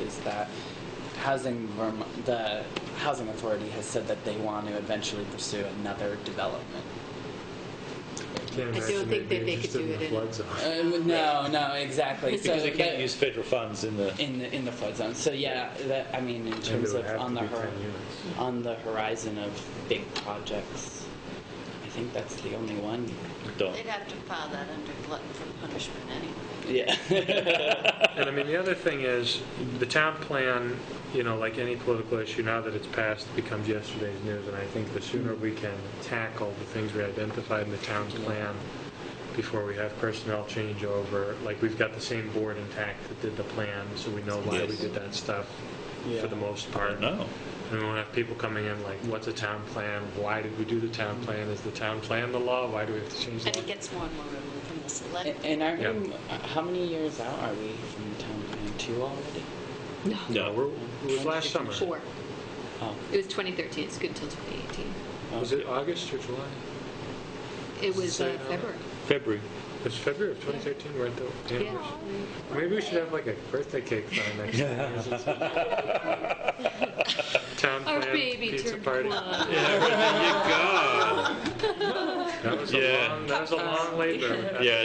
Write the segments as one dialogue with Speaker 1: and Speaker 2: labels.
Speaker 1: is that housing, Verm- the housing authority has said that they want to eventually pursue another development.
Speaker 2: I don't think that they could do it in.
Speaker 1: Uh, no, no, exactly.
Speaker 3: Because they can't
Speaker 1: but-
Speaker 3: use federal funds in the,
Speaker 1: in the in the flood zone. So yeah, that I mean in terms of on the hor- on the horizon of big projects, I think that's the only one.
Speaker 3: don't.
Speaker 4: They'd have to file that under glutton for punishment anyway.
Speaker 1: Yeah.
Speaker 5: And I mean, the other thing is, the town plan, you know, like any political issue, now that it's passed, becomes yesterday's news. And I think the sooner we can tackle the things we identified in the town's plan before we have personnel change over, like, we've got the same board intact that did the plan, so we know why we
Speaker 3: Yes.
Speaker 5: did that stuff for the most part.
Speaker 3: No.
Speaker 5: And we won't have people coming in like, what's a town plan? Why did we do the town plan? Is the town plan the law? Why do we have to change the
Speaker 4: And
Speaker 5: law?
Speaker 4: it gets more and more removed from the select.
Speaker 1: And- and are we,
Speaker 5: Yeah.
Speaker 1: how many years out are we from the town plan two already?
Speaker 3: No, we're,
Speaker 5: It was last summer.
Speaker 2: Four.
Speaker 1: Oh,
Speaker 2: It was 2013, it's good until 2018.
Speaker 5: Was it August or July?
Speaker 2: It was
Speaker 5: Say
Speaker 2: uh,
Speaker 5: it out.
Speaker 2: February.
Speaker 3: February.
Speaker 5: It's February of 2013, we're at the
Speaker 2: Yeah.
Speaker 5: anniversary. Maybe we should have like a birthday cake for our next year. Town
Speaker 2: Our
Speaker 5: plan,
Speaker 2: baby
Speaker 5: pizza
Speaker 2: turned
Speaker 5: party.
Speaker 2: one.
Speaker 3: Yeah,
Speaker 5: That was a
Speaker 3: Yeah.
Speaker 5: long, that was a long labor.
Speaker 3: I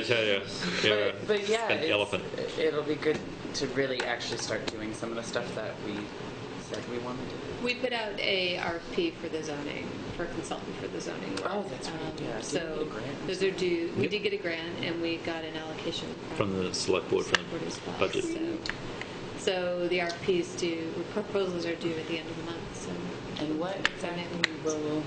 Speaker 3: tell you. Yeah.
Speaker 1: But, but yeah,
Speaker 3: An
Speaker 1: it's-
Speaker 3: elephant.
Speaker 1: It'll be good to really actually start doing some of the stuff that we said we wanted to. do.
Speaker 2: We put out a RFP for the zoning, for a consultant for the zoning. work.
Speaker 1: Oh, that's right,
Speaker 2: Um,
Speaker 1: yeah. Did we get a
Speaker 2: So
Speaker 1: grant?
Speaker 2: those are due, we
Speaker 3: Yep.
Speaker 2: did get a grant and we got an allocation.
Speaker 3: From the select board, from
Speaker 2: Board
Speaker 3: the
Speaker 2: as well.
Speaker 3: budget.
Speaker 2: So- So the RFPs due, the proposals are due at the end of the month, so.
Speaker 1: And what
Speaker 2: Zoning.
Speaker 1: exactly will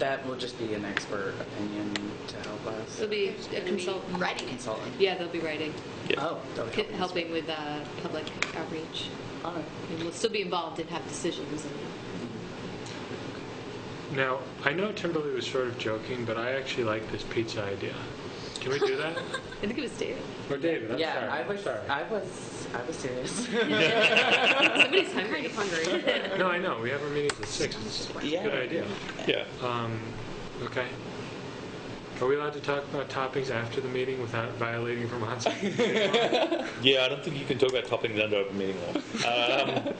Speaker 1: that will just be an expert opinion to help us.
Speaker 2: It'll be a
Speaker 4: Gonna be
Speaker 2: consultant.
Speaker 4: Writing it.
Speaker 1: Consultant.
Speaker 2: Yeah, they'll be writing,
Speaker 3: Yeah.
Speaker 1: Oh, that'll help us.
Speaker 2: helping with uh, public outreach.
Speaker 1: All right.
Speaker 2: And we'll still be involved and have decisions and
Speaker 5: Now, I know Timberly was sort of joking, but I actually like this pizza idea. Can we do that?
Speaker 2: I think it was David.
Speaker 5: Or David, I'm sorry.
Speaker 1: yeah, I
Speaker 5: I'm
Speaker 1: was,
Speaker 5: sorry.
Speaker 1: I was, I was serious.
Speaker 2: Somebody's hungry. hungry.
Speaker 5: No, I know, we have our meetings at six. It's a
Speaker 1: Yeah.
Speaker 5: good idea.
Speaker 3: Yeah.
Speaker 5: Um, okay. Are we allowed to talk about topics after the meeting without violating Vermont's?
Speaker 3: Yeah, I don't think you can talk about topping the under open meeting law. Um,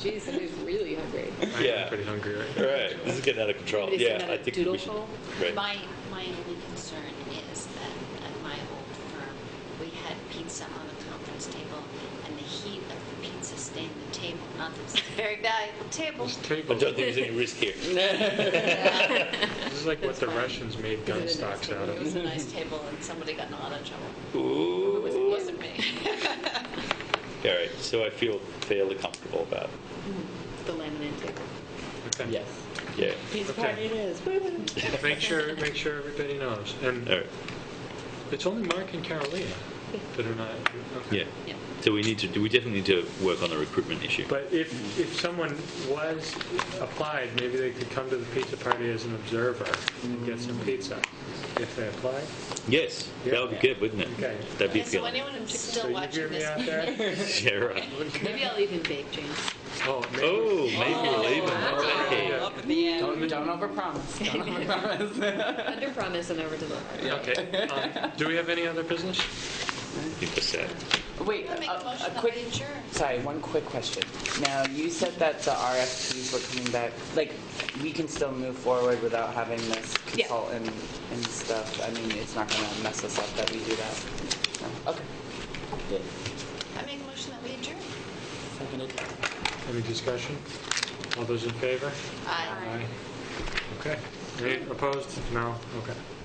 Speaker 2: Jeez, somebody's really hungry.
Speaker 5: I
Speaker 3: Yeah.
Speaker 5: am pretty hungry right now.
Speaker 3: All right, this is getting out of control.
Speaker 2: Somebody sent
Speaker 3: Yeah,
Speaker 2: out
Speaker 3: I
Speaker 2: a
Speaker 3: think
Speaker 2: doodle
Speaker 3: we should.
Speaker 2: poll.
Speaker 3: Right.
Speaker 4: My, my only concern is that at my old firm, we had pizza on the conference table and the heat of the pizza stained the table. Not that it's a very valuable table.
Speaker 5: This
Speaker 3: I
Speaker 5: table,
Speaker 3: don't think there's any risk here.
Speaker 5: this is like what the
Speaker 2: fine.
Speaker 5: Russians made gun
Speaker 2: Is it a nice
Speaker 5: stocks out
Speaker 4: It
Speaker 5: of.
Speaker 4: was a nice table and somebody got in a lot of trouble. It was-
Speaker 3: Ooh.
Speaker 4: wasn't me.
Speaker 3: All right, so I feel fairly comfortable about,
Speaker 2: The laminate table.
Speaker 5: Okay.
Speaker 1: yes.
Speaker 3: yeah.
Speaker 1: Pizza
Speaker 5: Okay.
Speaker 1: party it is. Woo.
Speaker 5: Make sure, make sure everybody knows.
Speaker 3: All
Speaker 5: And
Speaker 3: right,
Speaker 5: it's only Mark and Carolina that are not. okay.
Speaker 3: yeah.
Speaker 2: Yeah.
Speaker 3: So we need to, we definitely need to work on the recruitment issue.
Speaker 5: But if, if someone was applied, maybe they could come to the pizza party as an observer and get
Speaker 3: Mm.
Speaker 5: some pizza if they apply.
Speaker 3: Yes, that would be good, wouldn't it?
Speaker 5: Okay.
Speaker 3: That'd be
Speaker 4: Yeah, so
Speaker 3: appealing.
Speaker 4: anyone who's
Speaker 5: So
Speaker 4: still
Speaker 5: you hear
Speaker 4: watching
Speaker 5: me out
Speaker 4: this,
Speaker 5: there?
Speaker 3: Yeah, right.
Speaker 2: Maybe I'll even bake, James.
Speaker 5: Oh, maybe.
Speaker 3: Oh, maybe we'll even. Oh, Okay.
Speaker 5: Yeah.
Speaker 1: Don't, don't overpromise. Don't overpromise.
Speaker 2: Under promise and over deliver.
Speaker 5: Okay. Um, Do we have any other business?
Speaker 3: Keep us set.
Speaker 1: Wait,
Speaker 4: I'll make
Speaker 1: a,
Speaker 4: a motion
Speaker 1: a
Speaker 4: that
Speaker 1: quick.
Speaker 4: we adjourn.
Speaker 1: Sorry, one quick question. Now you said that the RFPs were coming back. Like we can still move forward without having this
Speaker 2: Yeah.
Speaker 1: consultant and stuff. I mean, it's not going to mess us up that we do that. No? Okay. Good.
Speaker 4: I make a motion that we adjourn.
Speaker 1: Seconded.
Speaker 5: Any discussion? All those in favor?
Speaker 4: Aye.
Speaker 5: Okay. Any opposed? No? Okay.